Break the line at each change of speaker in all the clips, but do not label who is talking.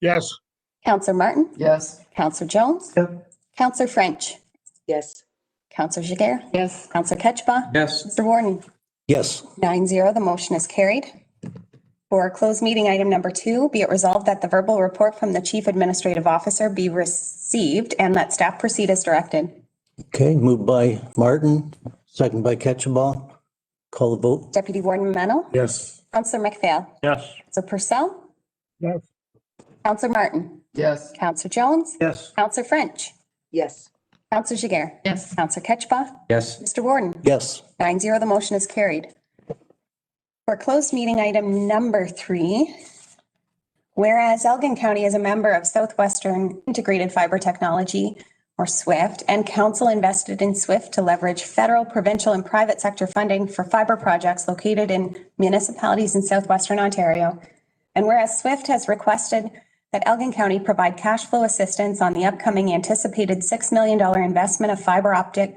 Yes.
Counselor Martin,
Yes.
Counselor Jones,
Yep.
Counselor French,
Yes.
Counselor Jiguer,
Yes.
Counselor Ketchba,
Yes.
Mr. Warden.
Yes.
Nine zero, the motion is carried. For closed meeting item number two, be it resolved that the verbal report from the chief administrative officer be received and that staff proceed as directed.
Okay, moved by Martin, second by Ketchabah. Call the vote.
Deputy Warden Mennel,
Yes.
Counselor McPhail,
Yes.
Counselor Purcell,
Yes.
Counselor Martin,
Yes.
Counselor Jones,
Yes.
Counselor French,
Yes.
Counselor Jiguer,
Yes.
Counselor Ketchba,
Yes.
Mr. Warden.
Yes.
Nine zero, the motion is carried. For closed meeting item number three, whereas Elgin County is a member of Southwestern Integrated Fiber Technology, or SWIFT, and council invested in SWIFT to leverage federal, provincial, and private sector funding for fiber projects located in municipalities in southwestern Ontario. And whereas SWIFT has requested that Elgin County provide cash flow assistance on the upcoming anticipated $6 million investment of fiber optic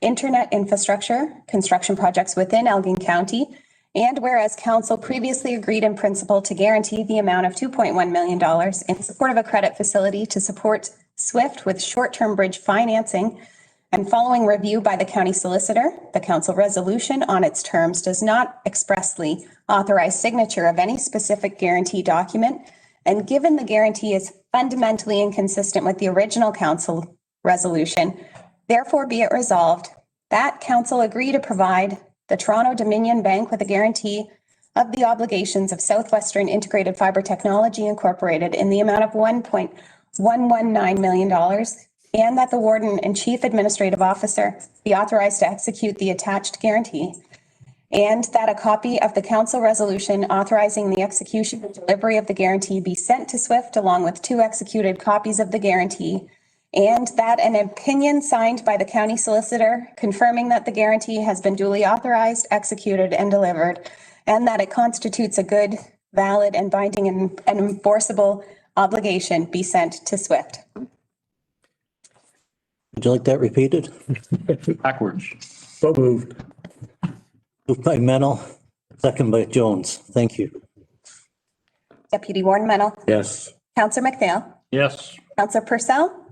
internet infrastructure, construction projects within Elgin County, and whereas council previously agreed in principle to guarantee the amount of $2.1 million in support of a credit facility to support SWIFT with short-term bridge financing, and following review by the county solicitor, the council resolution on its terms does not expressly authorize signature of any specific guarantee document, and given the guarantee is fundamentally inconsistent with the original council resolution, Therefore be it resolved that council agree to provide the Toronto Dominion Bank with a guarantee of the obligations of Southwestern Integrated Fiber Technology Incorporated in the amount of $1.119 million and that the warden and chief administrative officer be authorized to execute the attached guarantee. And that a copy of the council resolution authorizing the execution and delivery of the guarantee be sent to SWIFT along with two executed copies of the guarantee. And that an opinion signed by the county solicitor confirming that the guarantee has been duly authorized, executed, and delivered, and that it constitutes a good, valid, and binding and and enforceable obligation be sent to SWIFT.
Would you like that repeated?
Backwards.
So moved.
Moved by Mennel, second by Jones. Thank you.
Deputy Warden Mennel,
Yes.
Counselor McPhail,
Yes.
Counselor Purcell,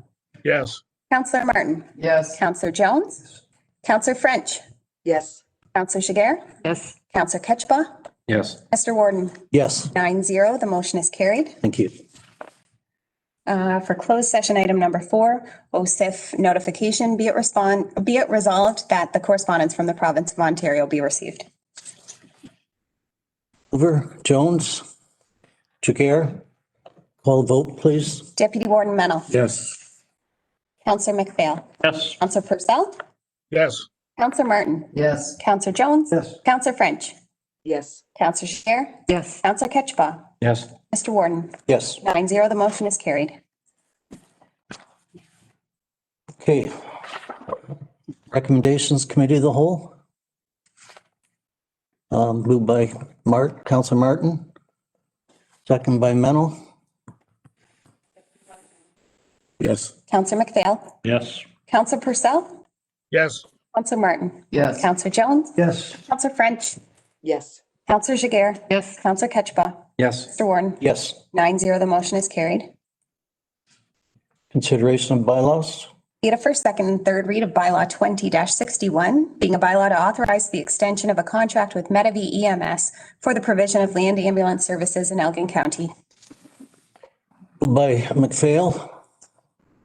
Yes.
Counselor Martin,
Yes.
Counselor Jones, Counselor French,
Yes.
Counselor Jiguer,
Yes.
Counselor Ketchba,
Yes.
Mr. Warden,
Yes,
nine zero, the motion is carried.
thank you.
Uh, For closed session item number four, OSIF notification, be it respond, be it resolved that the correspondence from the province of Ontario be received.
Hoover, Jones, Jagger. Call the vote, please.
Deputy Warden Mennel,
Yes.
Counselor McPhail,
Yes.
Counselor Purcell,
Yes.
Counselor Martin,
Yes.
Counselor Jones,
Yes.
Counselor French,
Yes.
Counselor Share,
Yes.
Counselor Ketchba,
Yes.
Mr. Warden,
Yes.
nine zero, the motion is carried.
Okay. Recommendations Committee of the Whole. Um, moved by Mart, Council Martin. Second by Mennel.
Yes.
Counselor McPhail,
Yes.
Counselor Purcell,
Yes.
Counselor Martin,
Yes.
Counselor Jones,
Yes.
Counselor French,
Yes.
Counselor Jiguer,
Yes.
Counselor Ketchba,
Yes.
Mr. Warden,
Yes.
nine zero, the motion is carried.
Consideration of bylaws.
Be it a first, second, and third read of bylaw twenty sixty-one, being a bylaw to authorize the extension of a contract with Medivy EMS for the provision of land ambulance services in Elgin County.
Moved by McPhail.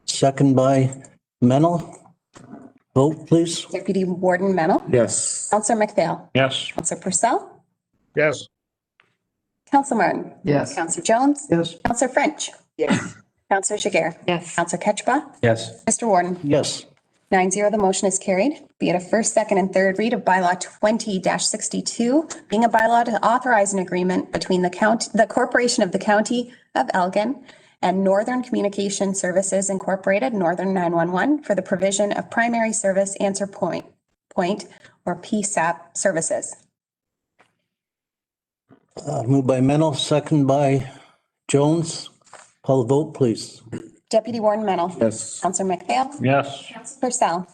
Second by Mennel. Vote, please.
Deputy Warden Mennel,
Yes.
Counselor McPhail,
Yes.
Counselor Purcell,
Yes.
Counselor Martin,
Yes.
Counselor Jones,
Yes.
Counselor French,
Yes.
Counselor Jiguer,
Yes.
Counselor Ketchba,
Yes.
Mr. Warden.
Yes.
Nine zero, the motion is carried. Be it a first, second, and third read of bylaw twenty sixty-two, being a bylaw to authorize an agreement between the county, the corporation of the county of Elgin and Northern Communication Services Incorporated, Northern nine-one-one, for the provision of primary service answer point, point, or PSAP services.
Uh, moved by Mennel, second by Jones. Call the vote, please.
Deputy Warden Mennel.
Yes.
Counselor McPhail.
Yes.
Counselor Purcell.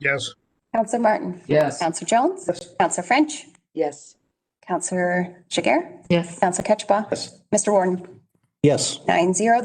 Yes.
Counselor Martin.
Yes.
Counselor Jones. Counselor French.
Yes.
Counselor Jiguer.
Yes.
Counselor Ketchba.
Yes.
Mr. Warden.
Yes.
nine zero.